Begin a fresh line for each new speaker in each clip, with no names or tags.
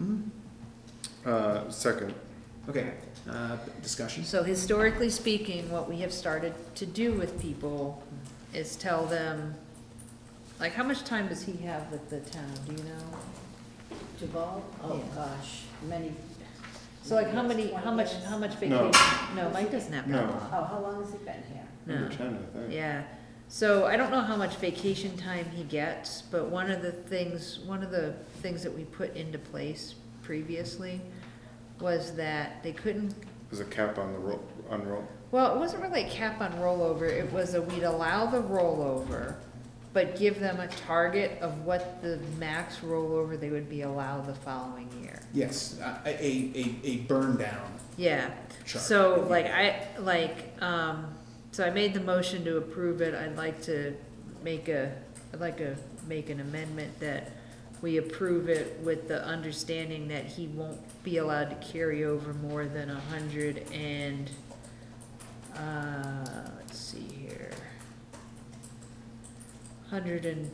Mm-hmm.
Uh, second,
Okay, uh, discussion?
So historically speaking, what we have started to do with people is tell them, like, how much time does he have with the town, do you know?
Jabal, oh
Yeah.
gosh, many.
So like, how many,
Twenty
how much,
years.
how much
No.
vacation? No, Mike doesn't have that
No.
long.
Oh, how long has he been here?
number
No.
ten, I think.
Yeah, so I don't know how much vacation time he gets, but one of the things, one of the things that we put into place previously was that they couldn't,
There's a cap on the roll, on roll.
well, it wasn't really a cap on rollover, it was a, we'd allow the rollover, but give them a target of what the max rollover they would be allowed the following year.
Yes, uh, a, a, a burn down
Yeah,
chart.
So like I, like, um, so I made the motion to approve it, I'd like to make a, I'd like to make an amendment that we approve it with the understanding that he won't be allowed to carry over more than a hundred and, uh, let's see here. Hundred and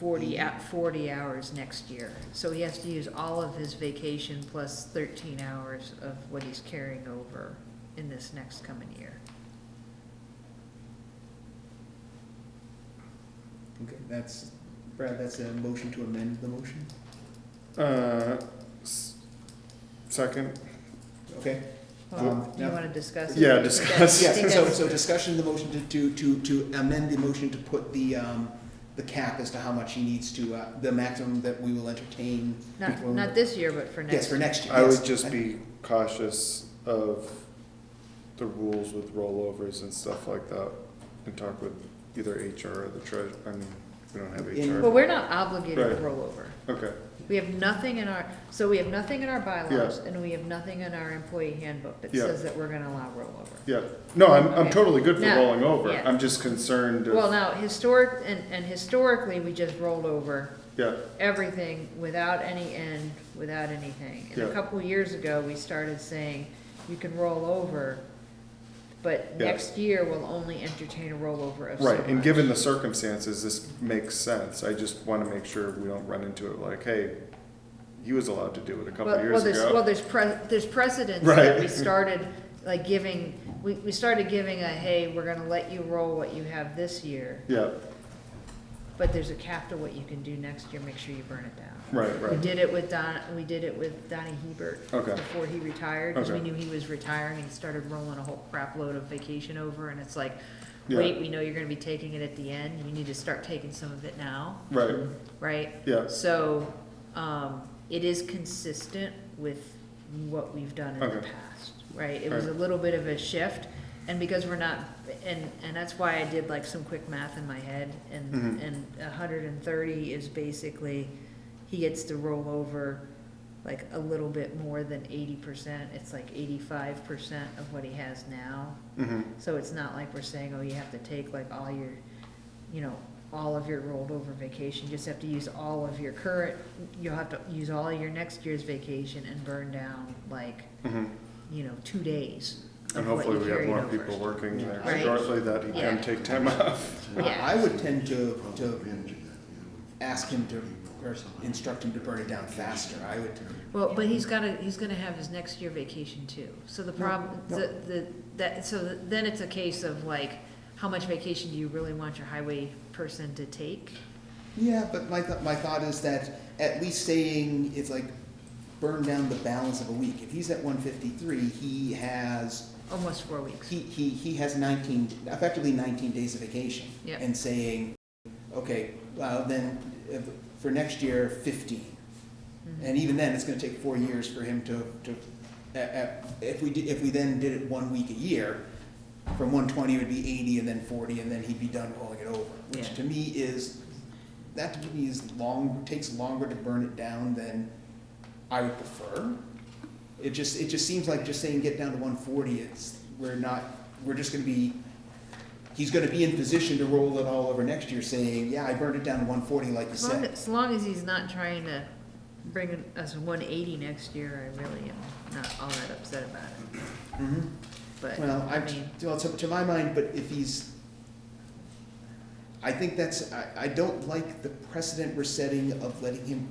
forty, ou- forty hours next year. So he has to use all of his vacation plus thirteen hours of what he's carrying over in this next coming year.
Okay, that's, Brad, that's a motion to amend the motion?
Uh, s- second,
Okay,
Well,
Um,
you
yeah.
wanna discuss? it?
Yeah,
I think that-
discuss.
I think
yes, so,
that's-
so discussion of the motion to, to, to, to amend the motion to put the, um, the cap as to how much he needs to, uh, the maximum that we will entertain.
Not,
before-
not this year, but for
Yes,
next.
for next year,
I
yes.
would just be cautious of the rules with rollovers and stuff like that, and talk with either HR or the treasurer, I mean, we don't have
In-
Well,
HR.
we're not obligated to
Right.
roll over.
Okay,
We have nothing in our, so we have nothing in our bylaws and we have nothing in our employee handbook that
Yeah.
says that we're gonna allow rollover.
yeah, no, I'm, I'm
Okay.
totally good for
No,
rolling over,
yeah.
I'm just concerned
Well,
of,
now, historic, and, and historically, we just rolled over
yeah,
everything without any end, without anything. And a
Yeah.
couple years ago, we started saying, you can roll over, but
Yeah.
next year, we'll only entertain a rollover of so
right, and
much.
given the circumstances, this makes sense, I just wanna make sure we don't run into it like, hey, he was allowed to do it a couple
Well- well,
years
there's- Well,
ago.
there's pre, there's precedence that we
Right.
started, like, giving, we, we started giving a, hey, we're gonna let you roll what you have this year,
Yeah,
but there's a cap to what you can do next year, make sure you burn it down.
right,
We
right,
did it with Don, we did it with Donnie Hebert.
Okay.
Before he retired, because we
Okay.
knew he was retiring and started rolling a whole crap load of vacation over, and it's like,
Yeah.
wait, we know you're gonna be taking it at the end, you need to start taking some of it now,
right,
right?
yeah,
So, um, it is consistent with what we've done in the
Okay.
past, right? It was a little bit of a shift, and because we're not, and, and that's why I did like some quick math in my head, and,
Mhm.
and a hundred and thirty is basically, he gets to roll over like a little bit more than eighty percent, it's like eighty-five percent of what he has now.
mhm,
So it's not like we're saying, oh, you have to take like all your, you know, all of your rolled over vacation, you just have to use all of your current, you'll have to use all of your next year's vacation and burn down like,
mhm.
you know, two days
And
of what you
hopefully we have
carried
more
over.
people working there
Right.
shortly that he
Yeah.
can take time off.
I I
Yeah,
would tend to, to ask him to, or instruct him to burn it down faster, I would,
well, but he's gotta, he's gonna have his next year vacation too, so the problem, the, the, that, so then it's a case of like, how much vacation do you really want your highway person to take?
yeah, but my, th- my thought is that at least saying it's like burn down the balance of a week. If he's at one fifty-three, he has,
Almost four weeks.
he, he, he has nineteen, effectively nineteen days of vacation.
Yeah.
And saying, okay, well, then, uh, for next year, fifteen. And even then, it's gonna take four years for him to, to, uh, if we, did- if we then did it one week a year, from one twenty it would be eighty and then forty, and then he'd be done rolling it over. Which
Yeah.
to me is, that to me is long, takes longer to burn it down than I would prefer. It just, it just seems like just saying get down to one forty, it's, we're not, we're just gonna be, he's gonna be in position to roll it all over next year, saying, yeah, I burned it down to one forty like you
As long,
said.
as long as he's not trying to bring us one eighty next year, I really am not all that upset about it,
Mhm.
but,
Well, I,
I mean,
well, to, to my mind, but if he's, I think that's, I, I don't like the precedent we're setting of letting him